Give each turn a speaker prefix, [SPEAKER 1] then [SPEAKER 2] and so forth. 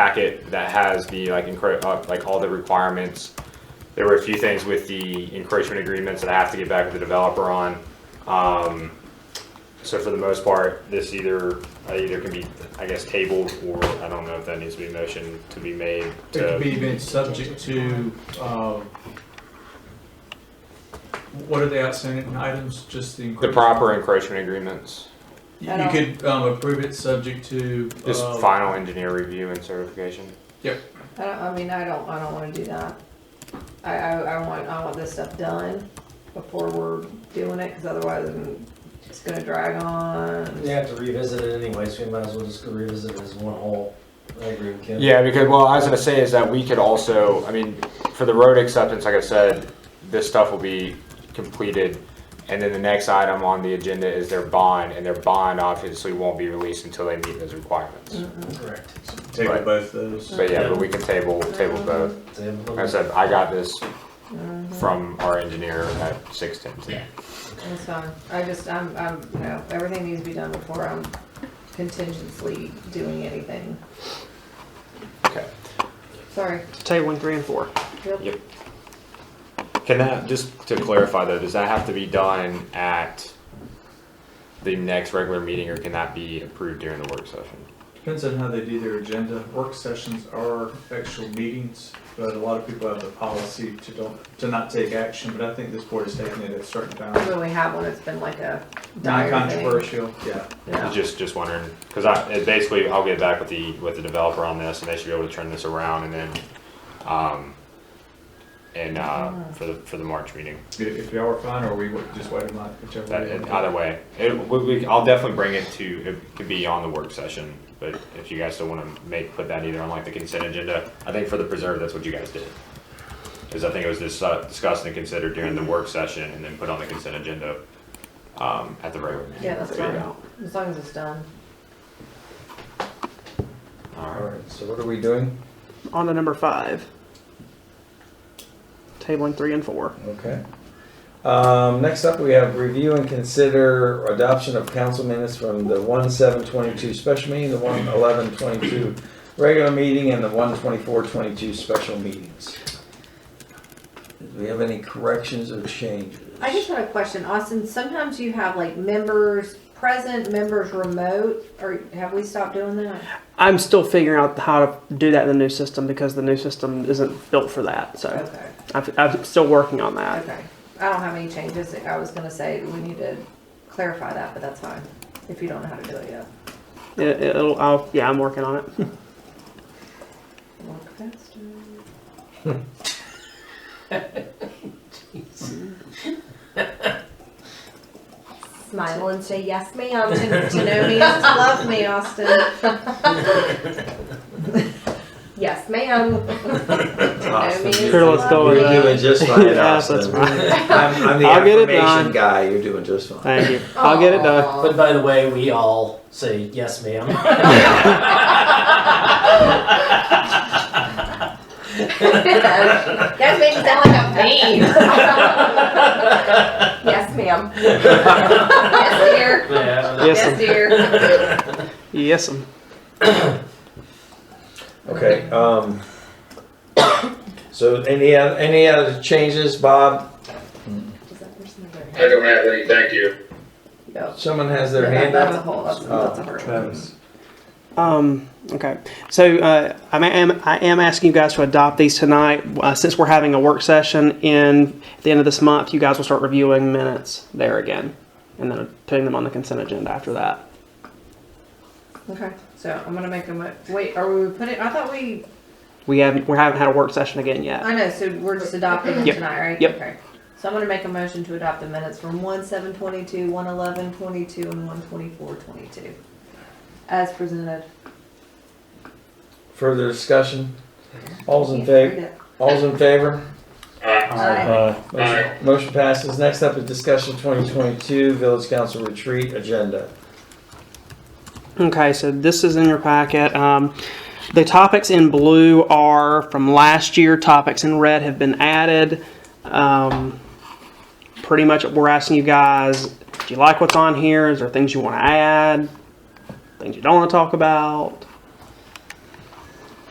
[SPEAKER 1] packet that has the like encro- uh, like all the requirements. There were a few things with the encroachment agreements that I have to get back with the developer on. Um, so for the most part, this either uh, either can be, I guess, tabled or I don't know if that needs to be motion to be made.
[SPEAKER 2] It
[SPEAKER 1] To,
[SPEAKER 2] could be made subject to, um, what are the outstanding items, just the.
[SPEAKER 1] the proper encroachment agreements,
[SPEAKER 2] You you could, um, approve it subject to.
[SPEAKER 1] just
[SPEAKER 2] um,
[SPEAKER 1] final engineer review and certification.
[SPEAKER 3] I don't, I mean, I don't, I don't wanna do that. I, I, I want, I want this stuff done before we're doing it, cause otherwise I'm- it's gonna drag on.
[SPEAKER 4] We have to revisit it anyway, so we might as well just go revisit it as one whole. I agree with Ken.
[SPEAKER 1] Yeah, because well, I was gonna say is that we could also, I mean, for the road acceptance, like I said, this stuff will be completed. And then the next item on the agenda is their bond, and their bond obviously won't be released until they meet those requirements.
[SPEAKER 3] Mm-mm.
[SPEAKER 4] Correct.
[SPEAKER 2] Table
[SPEAKER 1] Right.
[SPEAKER 2] both those.
[SPEAKER 1] But yeah, but we can table, table both. Like I said, I got this from our engineer at six ten today.
[SPEAKER 3] That's fine. I just, I'm, I'm, you know, everything needs to be done before I'm contingently doing anything.
[SPEAKER 1] Okay.
[SPEAKER 3] Sorry.
[SPEAKER 5] Table one, three, and four.
[SPEAKER 1] Yep. Can that, just to clarify though, does that have to be done at the next regular meeting or can that be approved during the work session?
[SPEAKER 2] Depends on how they do their agenda. Work sessions are actual meetings, but a lot of people have the policy to don't, to not take action, but I think this board has taken it at certain times.
[SPEAKER 3] When we have one, it's been like a dire thing.
[SPEAKER 2] Non-controversial, yeah.
[SPEAKER 3] Yeah.
[SPEAKER 1] Just, just wondering, because I, it basically, I'll get back with the, with the developer on this, and they should be able to turn this around, and then, um, and,
[SPEAKER 3] Mm-hmm.
[SPEAKER 1] uh, for the, for the March meeting.
[SPEAKER 2] If- If y'all are fine, or we would just wait a month,
[SPEAKER 3] Oh,
[SPEAKER 2] whichever.
[SPEAKER 1] That,
[SPEAKER 2] way you want.
[SPEAKER 1] either way, it, we, we, I'll definitely bring it to, it could be on the work session, but if you guys still want to make, put that either on like the consent agenda, I think for the preserve, that's what you guys did. Because I think it was dis- uh, discussed and considered during the work session, and then put on the consent agenda, um, at the regular meeting.
[SPEAKER 3] Yeah, that's
[SPEAKER 1] There you
[SPEAKER 3] fine.
[SPEAKER 1] go.
[SPEAKER 3] As long as it's done.
[SPEAKER 1] All right.
[SPEAKER 4] Alright, so what are we doing?
[SPEAKER 5] On to number five. Table one, three, and four.
[SPEAKER 4] Okay. Um, next up, we have review and consider adoption of council minutes from the one seven twenty-two special meeting, the one eleven twenty-two regular meeting, and the one twenty-four twenty-two special meetings. Do we have any corrections or changes?
[SPEAKER 3] I just had a question, Austin. Sometimes you have like members present, members remote, or have we stopped doing that?
[SPEAKER 5] I'm still figuring out how to do that in the new system because the new system isn't built for that. So
[SPEAKER 3] Okay,
[SPEAKER 5] I've, I'm still working on that.
[SPEAKER 3] okay. I don't have any changes. I was gonna say we need to clarify that, but that's fine. If you don't know how to do it yet.
[SPEAKER 5] It, it'll, I'll, yeah, I'm working on it.
[SPEAKER 3] Walk faster. Smile and say yes, ma'am. To, to know me is to love me, Austin. yes, ma'am. to know me is to
[SPEAKER 5] Sure, let's
[SPEAKER 3] love
[SPEAKER 5] go
[SPEAKER 3] me.
[SPEAKER 5] with
[SPEAKER 4] You're
[SPEAKER 5] that.
[SPEAKER 4] doing just fine,
[SPEAKER 5] Yes, that's
[SPEAKER 4] Austin. I'm, I'm the
[SPEAKER 5] I'll get it
[SPEAKER 4] affirmation
[SPEAKER 5] done.
[SPEAKER 4] guy, you're doing just fine.
[SPEAKER 5] Thank you. I'll get it done.
[SPEAKER 3] Aw.
[SPEAKER 6] But by the way, we all say yes, ma'am.
[SPEAKER 3] that makes me sound like I'm mean. yes, ma'am. yes, dear.
[SPEAKER 6] Yeah.
[SPEAKER 5] Yes,
[SPEAKER 3] Yes,
[SPEAKER 5] um,
[SPEAKER 3] dear.
[SPEAKER 5] yes, um,
[SPEAKER 4] Okay, um, so any, oth- any other changes, Bob?
[SPEAKER 3] Does that person have their hand?
[SPEAKER 7] I don't have any, thank you.
[SPEAKER 3] Yep.
[SPEAKER 4] Someone has their
[SPEAKER 3] Yeah,
[SPEAKER 4] hand
[SPEAKER 3] that's a
[SPEAKER 4] up? Oh,
[SPEAKER 3] whole. That's, that's a hard one.
[SPEAKER 4] Travis.
[SPEAKER 5] Um, okay, so uh, I am I am asking you guys to adopt these tonight. Uh, since we're having a work session in at the end of this month, you guys will start reviewing minutes there again, and then putting them on the consent agenda after that.
[SPEAKER 3] Okay, so I'm gonna make a mo- wait. Are we putting? I thought we.
[SPEAKER 5] We haven't we haven't had a work session again yet.
[SPEAKER 3] I know. So we're just adopting them
[SPEAKER 5] Yep.
[SPEAKER 3] tonight, right?
[SPEAKER 5] Yep.
[SPEAKER 3] Okay. So I'm gonna make a motion to adopt the minutes from one seven twenty two, one eleven twenty two, and one twenty four twenty two, as presented.
[SPEAKER 4] Further discussion? All's in favor, all's in favor?
[SPEAKER 7] Uh,
[SPEAKER 3] Aye.
[SPEAKER 7] Aye.
[SPEAKER 4] Motion motion passes. Next up is discussion twenty twenty-two village council retreat agenda.
[SPEAKER 5] Okay, so this is in your packet. Um, the topics in blue are from last year. Topics in red have been added. Um, pretty much, we're asking you guys: Do you like what's on here? Is there things you want to add? Things you don't want to talk about?